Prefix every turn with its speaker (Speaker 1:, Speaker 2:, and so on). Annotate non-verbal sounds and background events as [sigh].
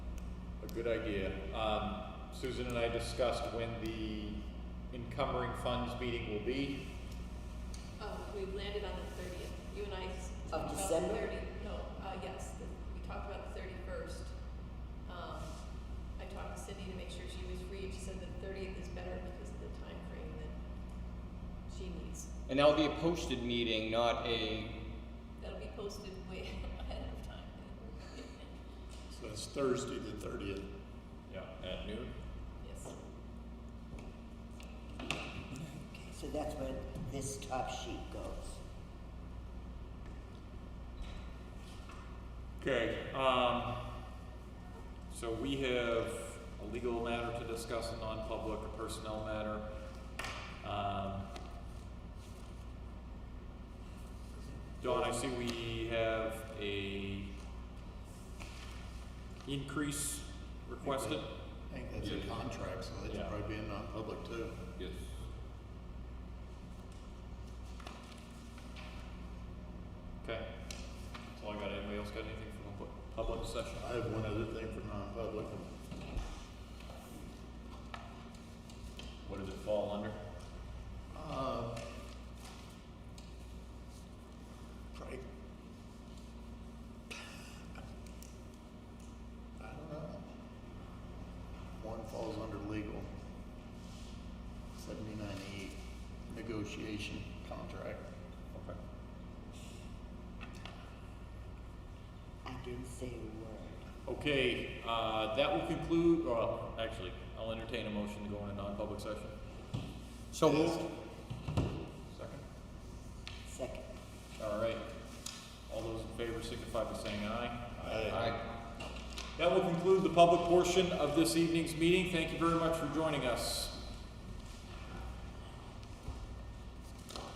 Speaker 1: Good idea. Um, Susan and I discussed when the encumbering funds meeting will be.
Speaker 2: Uh, we landed on the thirtieth, you and I s-
Speaker 3: Of
Speaker 2: talked about the
Speaker 3: December?
Speaker 2: thirty, no, uh, yes, the- we talked about the thirty-first. Um, I talked to Cindy to make sure she was free, and she said the thirtieth is better because of the time frame that she needs.
Speaker 4: And that'll be a posted meeting, not a,
Speaker 2: That'll be posted way [laughs] ahead of time.
Speaker 5: So that's Thursday, the thirtieth.
Speaker 1: Yeah. At noon?
Speaker 2: Yes,
Speaker 3: Okay, so that's where this top sheet goes.
Speaker 1: Okay, um, so we have a legal matter to discuss, a non-public, a personnel matter. Um, Don, I see we have a increase requested.
Speaker 5: I think that's a
Speaker 1: Yeah.
Speaker 5: contract, so that
Speaker 1: Yeah.
Speaker 5: should probably be a non-public too.
Speaker 1: Yes. Okay, that's all I got. Anybody else got anything from public, public session?
Speaker 5: I have one other thing for non-public.
Speaker 1: What does it fall under?
Speaker 5: Uh, Probably. I don't know. One falls under legal. Seventy-nine E, negotiation contract.
Speaker 1: Okay.
Speaker 3: I didn't say a word.
Speaker 1: Okay, uh, that will conclude, or actually, I'll entertain a motion to go into non-public session.
Speaker 4: so moved.
Speaker 1: Second.
Speaker 3: Second.
Speaker 1: All right. All those in favor signify by saying aye.
Speaker 5: Aye.
Speaker 1: That will conclude the public portion of this evening's meeting. Thank you very much for joining us.